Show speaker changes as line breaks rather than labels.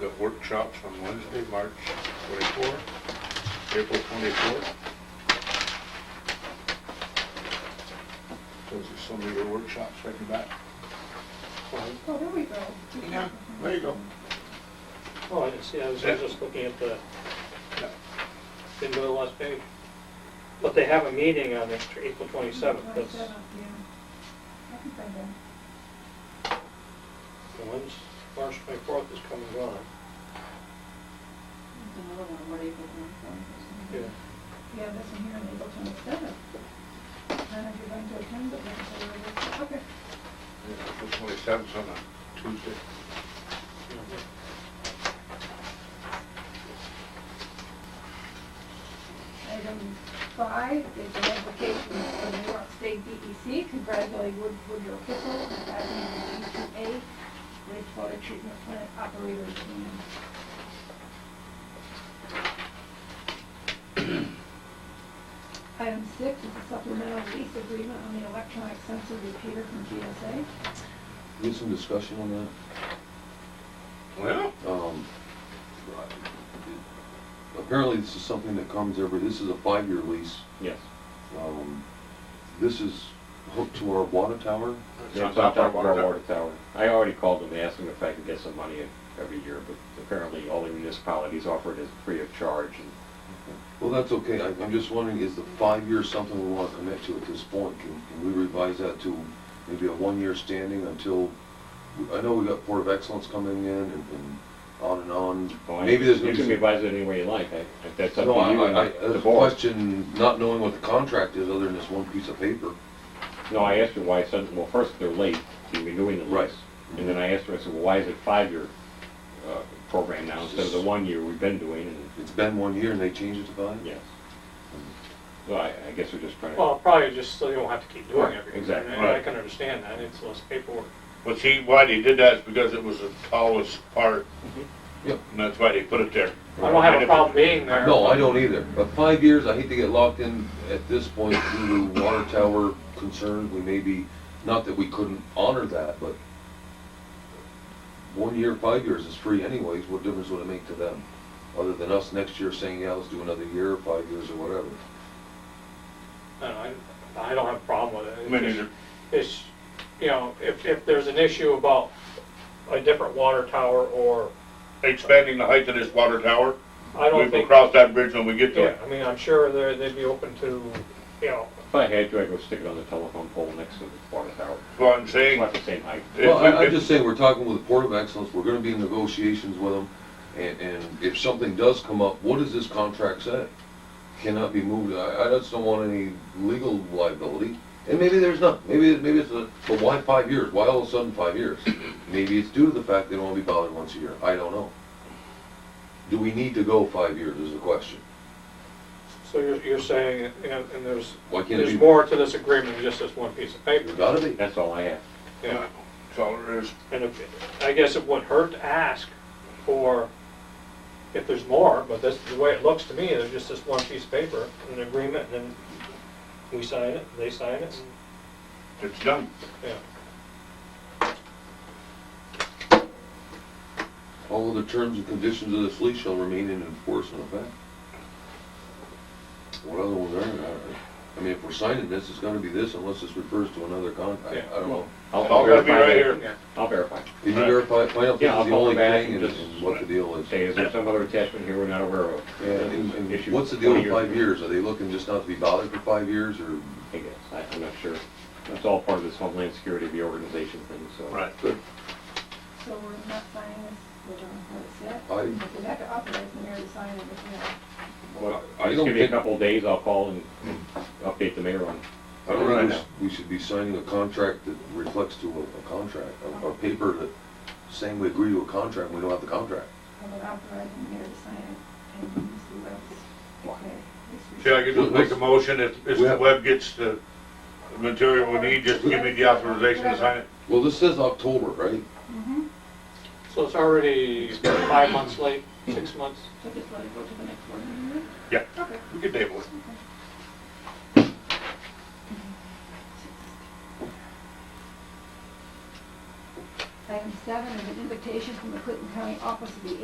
the workshops on Wednesday, March 24, April 24. Those are some of your workshops right in back.
Oh, there we go.
Yeah, there you go.
Oh, I didn't see, I was I was just looking at the,
Yeah.
didn't go to the last page. But they have a meeting on the- April 27th, that's
27th, yeah. I can find that.
the ones, March 24th is coming on.
There's another one, what April twenty-fourth?
Yeah.
Yeah, this one here on April twenty-seventh. None of you going to attend, but that's all right. Okay.
Yeah, April 27th on a Tuesday.
Item five is an application for New York State DEC, congratulating Wood- Woodrow Kissel, and passing the D2A wastewater treatment plant operator. exam. Item six is a supplemental lease agreement on the electronic sensor repeater from GSA.
We had some discussion on
Well,
that. Um, Apparently, this is something that comes every, this is a five-year lease.
Yes.
Um, This is hooked to our water tower.
They popped up on our water tower. I already called them, and asked them if I could get some money every year, but apparently all the municipalities offer it as free of charge. and
Well, that's okay. I- I'm just wondering, is the five-year something we want to commit to at this point? Can can we revise that to maybe a one-year standing until, I know we got Port of Excellence coming in and and on and on. Maybe there's
Oh,
going
You
to
can
be some
revise it any way you like, I- if that's up to
No, I,
you
I, I,
and the
the
board.
question, not knowing what the contract is other than this one piece of paper.
No, I asked her why, I said, well, first, they're late in renewing the
Right.
lease. And then I asked her, I said, well, why is it five-year uh, program now instead of the one year we've been doing? And,
It's been one year and they changed it to five?
yes. So I, I guess we're just trying to,
Well, probably just so you don't have to keep doing it.
Exactly.
And I can understand that, it's less paperwork.
well, see, why they did that is because it was the tallest part.
Yep.
And that's why they put it there.
I don't have a problem being there.
No, I don't either. But five years, I hate to get locked in at this point due to water tower concerns. We may be, not that we couldn't honor that, but one year, five years is free anyways. What difference would it make to them? Other than us next year saying, yeah, let's do another year, or five years or whatever.
No, I, uh, I don't have a problem with it. It's
Me
just-
neither.
It's, you know, if, if there's an issue about a different water tower or,
Expanding the height of this water tower,
I
we
don't
will
think,
cross that bridge when we get to
yeah,
it.
I mean, I'm sure they're, they'd be open to, you know,
if I had to, I'd go stick it on the telephone pole next to the water tower.
That's what I'm
It's
saying.
not the same height.
If
Well,
we-
I- I'm
if-
just saying, we're talking with the Port of Excellence, we're gonna be in negotiations with them, and, and if something does come up, what does this contract say? Cannot be moved, I, I just don't want any legal liability, and maybe there's not, maybe, maybe it's a, but why five years, why all of a sudden five years? Maybe it's due to the fact they don't wanna be bothered once a year, I don't know. Do we need to go five years is the question,
so you're, you're saying, you know, and there's,
why can't
there's
it be,
more to this agreement than just this one piece of paper.
There's gotta be,
That's all I have.
Yeah,
That's all there is.
and if, I guess it wouldn't hurt to ask for, if there's more, but that's the way it looks to me, there's just this one piece of paper, an agreement, and then we sign it, they sign it,
It's done.
and, yeah.
all of the terms and conditions of this lease shall remain in enforcement effect. What other ones are there? I- I mean, if we're signing this, it's gonna be this unless this refers to another contract. I don't know.
I'll
It's all gonna be
verify
right
that.
here.
I'll verify.
Can you verify, find out if this
Yeah, I'll
is the
call
only
them back
thing
and
and
just-
and what the deal is?
Say, is there some other attachment here we're not aware of?
Yeah, and- and
Issue
what's the deal with
20
five years? Are they looking just not to be bothered for five years or?
I guess, I- I'm not sure. That's all part of this Homeland Security reorganization thing, so.
Right.
So we're not signing this, we don't know this yet.
I-
If we have to authorize the mayor to sign it, if we have.
Well,
I
Just
don't
give me a
think-
couple of days, I'll call and update the mayor on.
I don't
Right.
think we s- we should be signing a contract that reflects to a, a contract, a, a paper that saying we agree to a contract, and we don't have the contract.
I'm gonna authorize the mayor to sign it and Mr. Webb's declare this
See, I could just make a motion if, if the web gets the material we need, just give me the authorization to sign it.
Well, this says October, right?
Mm-hmm,
So it's already five months late, six months?
so just let it go to the next board meeting.
Yeah.
Okay.
We could table it.
Item seven is an invitation from the Clinton County Office of the